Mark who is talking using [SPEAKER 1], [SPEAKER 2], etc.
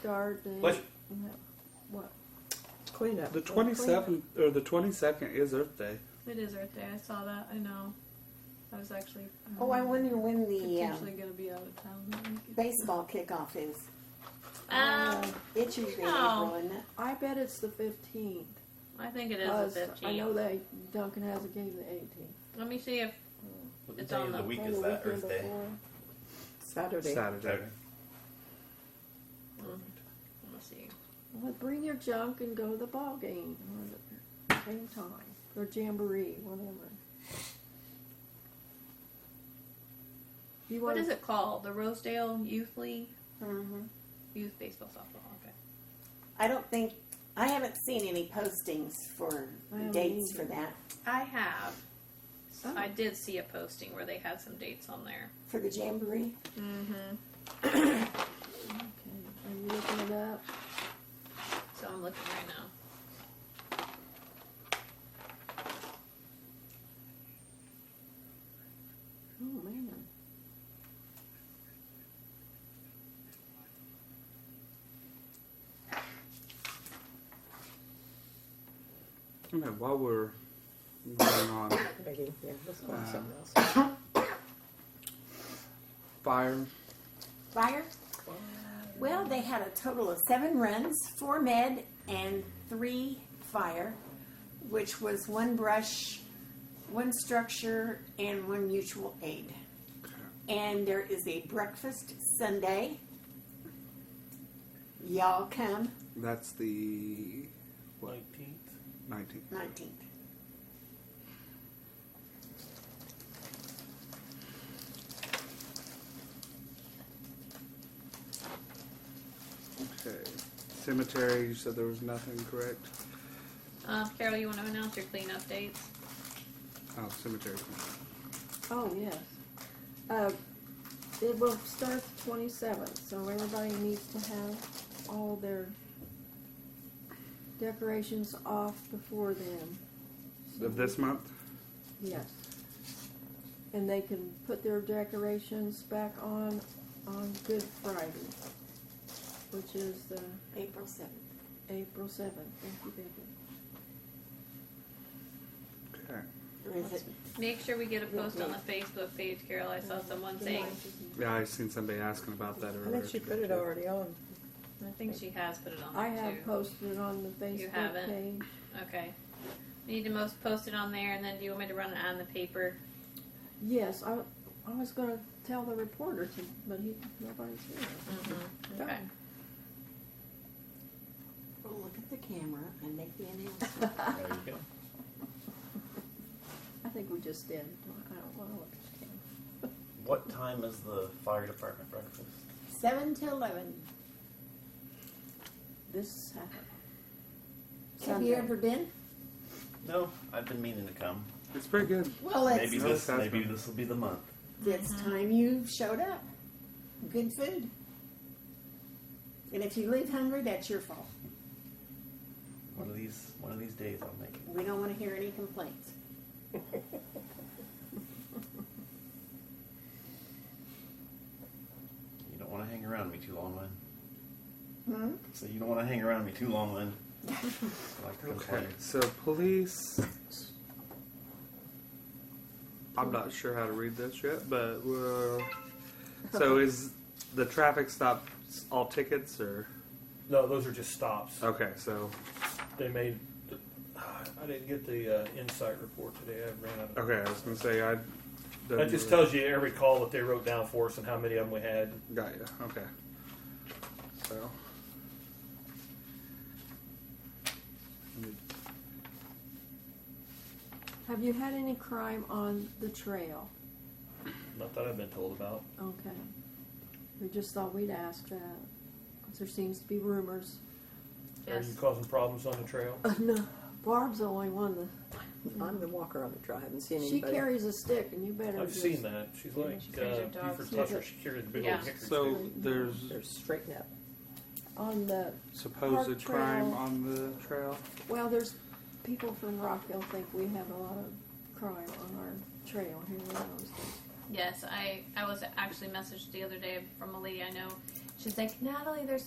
[SPEAKER 1] start date?
[SPEAKER 2] Let's-
[SPEAKER 1] and that- What? Cleanup.
[SPEAKER 3] The
[SPEAKER 1] What cleanup?
[SPEAKER 3] twenty seventh or the twenty second is Earth Day.
[SPEAKER 4] It is Earth Day. I saw that. I know. I was actually. um,
[SPEAKER 5] Oh, I wonder when the
[SPEAKER 4] Potentially
[SPEAKER 5] um,
[SPEAKER 4] going to be out of town. that weekend.
[SPEAKER 5] baseball kickoff is.
[SPEAKER 1] Um,
[SPEAKER 5] It's usually in
[SPEAKER 1] Oh.
[SPEAKER 4] no.
[SPEAKER 5] April, isn't it?
[SPEAKER 1] I bet it's the fifteenth.
[SPEAKER 4] I think it is the fifteenth.
[SPEAKER 1] I know that Duncan has a game the eighteenth.
[SPEAKER 4] Let me see if
[SPEAKER 6] What
[SPEAKER 4] It's
[SPEAKER 6] day
[SPEAKER 4] on
[SPEAKER 6] of the
[SPEAKER 4] the-
[SPEAKER 6] week is that? Earth Day.
[SPEAKER 1] Saturday.
[SPEAKER 3] Saturday.
[SPEAKER 6] Okay. Perfect.
[SPEAKER 4] let me see.
[SPEAKER 1] Well, bring your junk and go to the ball game or the same time or jamboree, whatever. You
[SPEAKER 4] What
[SPEAKER 1] want
[SPEAKER 4] is it called? The Rosedale Youth League,
[SPEAKER 1] Mm-hmm.
[SPEAKER 5] hmm
[SPEAKER 4] youth baseball, softball. Okay.
[SPEAKER 5] I don't think I haven't seen any postings for
[SPEAKER 1] I don't
[SPEAKER 5] dates
[SPEAKER 1] either.
[SPEAKER 5] for that
[SPEAKER 4] I have.
[SPEAKER 1] Oh.
[SPEAKER 4] I did see a posting where they had some dates on there.
[SPEAKER 5] for the jamboree.
[SPEAKER 4] Mm-hmm.
[SPEAKER 1] Okay, are you looking it up?
[SPEAKER 4] So I'm looking right now.
[SPEAKER 1] Oh man.
[SPEAKER 3] Okay, while we're going on
[SPEAKER 7] Begging, yeah, let's go on
[SPEAKER 3] Uh,
[SPEAKER 7] something else.
[SPEAKER 3] fire,
[SPEAKER 5] Fire. Well, they had a total of seven runs, four med and three fire, which was one brush, one structure, and one mutual aid. And there is a breakfast Sunday. Y'all come
[SPEAKER 3] that's the what
[SPEAKER 6] Nineteenth.
[SPEAKER 3] nineteenth.
[SPEAKER 5] 19th.
[SPEAKER 3] Okay. Cemetery, you said there was nothing, correct?
[SPEAKER 4] Uh, Carol, you want to announce your cleanup dates?
[SPEAKER 3] Oh, cemetery.
[SPEAKER 1] Oh, yes. Uh, it will start the twenty-seventh, so everybody needs to have all their decorations off before then,
[SPEAKER 3] Of this month?
[SPEAKER 1] yes. And they can put their decorations back on, on Good Friday, which is the
[SPEAKER 5] April 7th.
[SPEAKER 1] April seventh, thank you, baby.
[SPEAKER 3] Okay.
[SPEAKER 5] Or is it?
[SPEAKER 4] Make sure we get a post on the Facebook page, Carol. I saw someone saying.
[SPEAKER 3] Yeah, I seen somebody asking about that
[SPEAKER 7] I
[SPEAKER 3] earlier.
[SPEAKER 7] think she put it already on.
[SPEAKER 4] I think she has put it on there
[SPEAKER 1] I have
[SPEAKER 4] too.
[SPEAKER 1] posted it on the
[SPEAKER 4] You
[SPEAKER 1] Facebook
[SPEAKER 4] haven't?
[SPEAKER 1] page.
[SPEAKER 4] okay. We need to most post it on there, and then do you want me to run it on the paper?
[SPEAKER 1] Yes, I, I was gonna tell the reporter to, but he, nobody's here.
[SPEAKER 4] Mm-hmm. Okay.
[SPEAKER 5] Well, look at the camera and make the announcement.
[SPEAKER 6] There you go.
[SPEAKER 1] I think we just did. I don't want to look at the camera.
[SPEAKER 6] What time is the fire department breakfast?
[SPEAKER 5] 7 to 11.
[SPEAKER 1] This happened.
[SPEAKER 5] Have you
[SPEAKER 1] Sunday.
[SPEAKER 5] ever been?
[SPEAKER 6] No, I've been meaning to come.
[SPEAKER 3] It's pretty good.
[SPEAKER 5] Well, it's,
[SPEAKER 6] maybe
[SPEAKER 3] no,
[SPEAKER 6] this,
[SPEAKER 3] that's
[SPEAKER 6] maybe
[SPEAKER 3] fine.
[SPEAKER 6] this will be the month.
[SPEAKER 5] it's time you showed up. Good food. And if you leave hungry, that's your fault.
[SPEAKER 6] One of these, one of these days, I'll make it.
[SPEAKER 5] We don't want to hear any complaints.
[SPEAKER 6] You don't want to hang around me too long, Lynn.
[SPEAKER 5] Hmm?
[SPEAKER 6] So you don't want to hang around me too long, Lynn. I like to
[SPEAKER 3] Okay,
[SPEAKER 6] complain.
[SPEAKER 3] so police. I'm not sure how to read this yet, but uh, so is the traffic stop all tickets or
[SPEAKER 8] No, those are just stops.
[SPEAKER 3] okay? So
[SPEAKER 8] They made. I didn't get the uh, insight report today. I ran out. Of,
[SPEAKER 3] okay, I was gonna say I.
[SPEAKER 8] That just tells you every call that they wrote down for us and how many of them we had.
[SPEAKER 3] Got you. Okay. So.
[SPEAKER 1] Have you had any crime on the trail?
[SPEAKER 8] Not that I've been told about.
[SPEAKER 1] Okay. We just thought we'd ask that, because there seems to be rumors.
[SPEAKER 8] Are
[SPEAKER 4] Yes.
[SPEAKER 8] you causing problems on the trail?
[SPEAKER 1] Uh, no, Barb's the only one that,
[SPEAKER 7] I'm the walker on the trail. I haven't seen
[SPEAKER 1] she
[SPEAKER 7] anybody.
[SPEAKER 1] carries a stick and you better
[SPEAKER 8] I've
[SPEAKER 1] just-
[SPEAKER 8] seen that. She's like
[SPEAKER 4] she
[SPEAKER 8] uh,
[SPEAKER 4] carries her dog.
[SPEAKER 8] Buford Tusher. She carried the big
[SPEAKER 4] Yeah.
[SPEAKER 8] old hickory
[SPEAKER 3] So
[SPEAKER 8] stick.
[SPEAKER 3] there's
[SPEAKER 7] They're straighten up.
[SPEAKER 1] On the, Park
[SPEAKER 3] supposed
[SPEAKER 1] trail.
[SPEAKER 3] crime on the trail.
[SPEAKER 1] well, there's, people from Rockville think we have a lot of crime on our trail here in Austin.
[SPEAKER 4] Yes. I I was actually messaged the other day from a lady I know. She's like, Natalie, there's